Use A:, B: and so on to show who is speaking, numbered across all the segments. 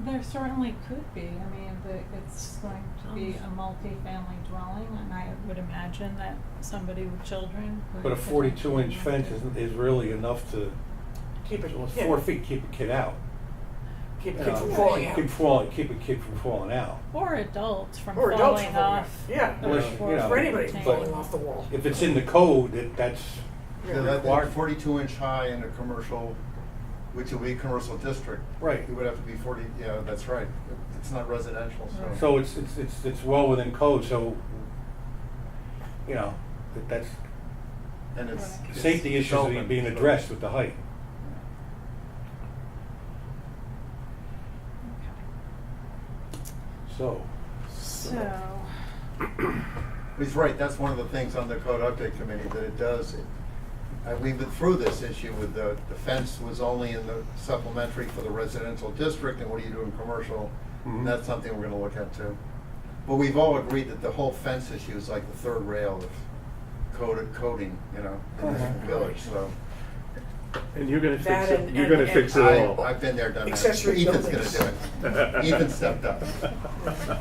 A: There certainly could be. I mean, the, it's going to be
B: Um,
A: a multi-family dwelling, and I would imagine that somebody with children would.
C: But a forty-two inch
A: potentially
C: fence
A: have to-
C: is, is really enough to,
B: Keep it,
C: well, it's
B: yeah,
C: four feet, keep a kid out.
B: Keep it
C: Uh,
B: from falling out.
C: Keep falling, keep a kid from falling out.
A: Or adults from
B: Or
A: falling off.
B: adults from falling off. Yeah.
A: the
C: Unless, you
A: fourth
C: know,
B: For anybody from
A: tank.
B: falling off the wall.
C: If it's in the code, that, that's,
B: Yeah.
D: Yeah, that,
C: Required.
D: that forty-two inch high in a commercial, which would be a commercial district.
C: Right.
D: It would have to be forty, yeah, that's right, it's not residential, so.
A: Right.
C: so it's, it's, it's, it's well within code, so, you know, that, that's,
D: And it's.
A: Right.
D: it's
C: safety issues are
D: development,
C: being
D: so-
C: addressed with the height. So,
A: So,
D: He's right, that's one of the things on the code update committee, that it does, uh, we've been through this issue with the, the fence was only in the supplementary for the residential district, and what do you do in commercial?
C: Mhm.
D: And that's something we're gonna look at too. But we've all agreed that the whole fence issue is like the third rail of code, coding, you know, in this
C: Uh-huh.
D: village, so.
E: And you're gonna
B: That
E: fix it,
B: and-
E: you're
B: and-
E: gonna fix it
B: and
D: I,
E: all.
D: I've been there, done that.
B: Accessory
D: Ethan's
B: buildings.
D: gonna do it. Ethan stepped up.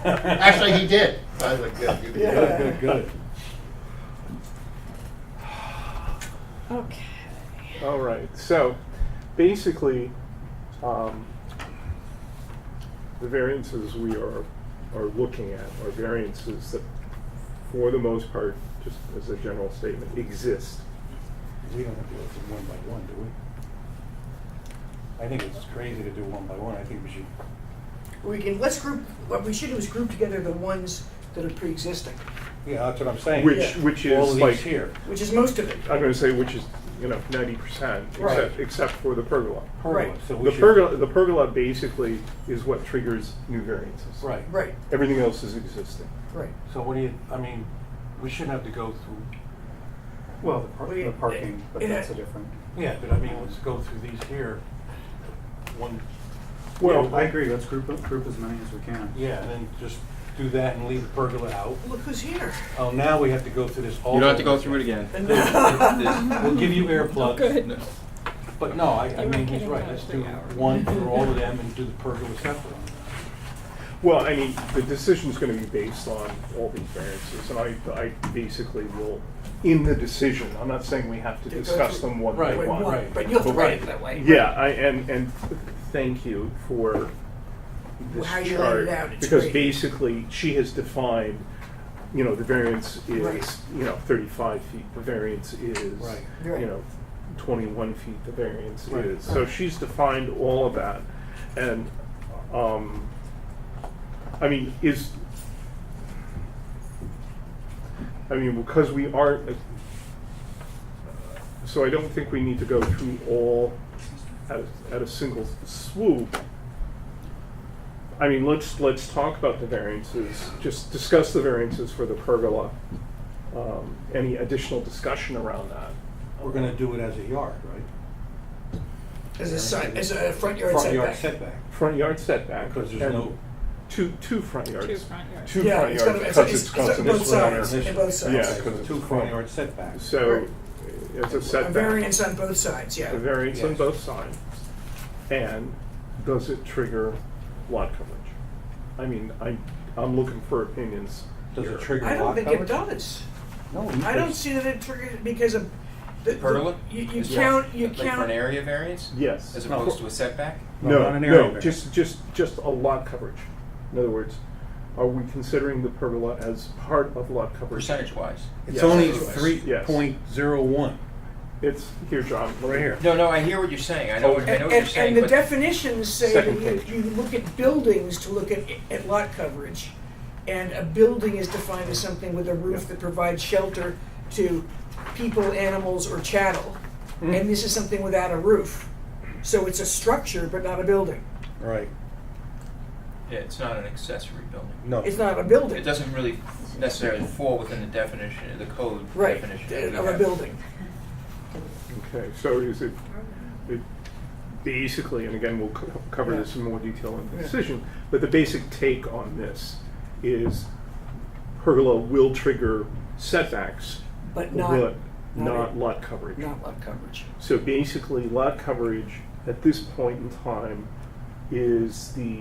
D: Actually, he did. So I was like, good, you can do it.
B: Yeah.
C: good, good, good.
A: okay.
E: All right, so basically, um, the variances we are, are looking at are variances that, for the most part, just as a general statement, exist.
C: We don't have to go through one by one, do we? I think it's crazy to do one by one, I think we should,
B: We can, let's group, what we should do is group together the ones that are pre-existing,
C: yeah, that's what I'm saying.
E: Which-
B: Yeah.
E: which
C: All
E: is
C: of
E: like-
C: these here,
B: which is most of it.
E: I'm gonna say which is, you know, ninety percent,
B: Right.
E: except, except for the pergola.
C: pergola,
B: Right.
C: so we
E: The
C: should.
E: pergola, the pergola basically is what triggers new variances.
C: Right,
B: Right,
E: Everything else is existing.
B: right.
C: so what do you, I mean, we shouldn't have to go through. Well, the
B: par- We- the parking, but it- that's a
C: different. Yeah, but I mean, let's go through these here, one,
E: Well,
F: I agree, let's group, group as many as we can.
C: yeah, and then just do that and leave the pergola out.
B: Look who's here.
C: Oh, now we have to go through this all.
F: You don't have to
C: over
F: go through it again.
C: We'll give you earplugs.
A: Good.
F: No.
C: But no, I, I
A: You were
C: mean, he's
A: kidding
C: right,
A: about
C: let's do
A: three hours.
C: one for all of them and do the pergola separate.
E: Well, I mean, the decision's gonna be based on all these variances, and I, I basically will, in the decision, I'm not saying we have to
B: To go
E: discuss
B: through-
E: them one by
C: Right,
B: Wait,
E: one.
B: one,
C: right.
B: But you have to write it that way.
E: Yeah, I, and, and thank you for this
B: How
E: chart.
B: you laid it out, it's
E: Because
B: great.
E: basically, she has defined, you know, the variance
B: Right.
E: is, you know, thirty-five feet, the variance is,
C: Right.
B: Right.
E: you know, twenty-one feet, the variance
C: Right.
E: is. So she's defined all of that, and, um, I mean, is, I mean, because we aren't, so I don't think we need to go through all at, a- at a single swoop. I mean, let's, let's talk about the variances, just discuss the variances for the pergola. Um, any additional discussion around that?
C: We're gonna do it as a yard, right?
B: As a side, as a front yard
C: Front yard
B: setback.
C: setback,
E: Front yard setback.
C: because there's
E: and
C: no,
E: Two, two front yards.
A: Two front yards.
E: Two
B: Yeah,
E: front
B: it's
E: yards,
B: gotta- it's-
E: because
B: it's-
E: it's
B: it's on
E: constant.
B: both
E: this one and
B: sides.
E: this-
B: on both sides.
E: Yeah, because
C: because
E: it's
C: two front yard setbacks.
E: So,
B: Right.
E: it's a
B: A
E: setback.
B: variance on both sides, yeah.
E: A variance on
C: Yes.
E: both sides. And does it trigger lot coverage? I mean, I, I'm looking for opinions.
C: Does
E: here.
C: it trigger
B: I don't
C: lot
B: think it
C: coverage?
B: does.
C: No,
B: I don't see that it triggers, because of, the, the,
F: Pergola?
B: you, you
F: Yeah.
B: count, you
F: Like for an
B: count,
F: area variance?
E: Yes.
F: As opposed to a setback?
C: No,
E: No,
C: not an area
E: no,
C: variance.
E: just, just, just a lot coverage. In other words, are we considering the pergola as part of lot coverage?
F: Percentage wise?
C: It's
E: Yes.
C: only
F: Yes.
C: three point zero one,
E: It's, here, John,
C: right here.
F: No, no, I hear what you're saying. I know, what- I
B: and,
F: know what you're
B: and,
F: saying,
B: and the
F: but
B: definitions say that
E: Second
B: you,
E: page.
B: you look at buildings to look at, at lot coverage. And a building is defined as something with a roof
E: Yeah.
B: that provides shelter to people, animals, or cattle.
F: Hmm.
B: And this is something without a roof. So it's a structure, but not a building.
C: Right,
F: yeah, it's not an accessory building.
C: no.
B: It's not a building.
F: It doesn't really necessarily fall within the definition, the code
B: Right, uh,
F: definition. that we
B: of a
F: have.
B: building.
E: Okay, so is it, it basically, and again, we'll co- cover this in more detail in the
B: Yeah.
E: decision, but the basic take on this is pergola will trigger setbacks,
B: But not,
E: but
B: not-
E: not lot coverage.
B: not lot coverage.
E: So basically, lot coverage at this point in time is the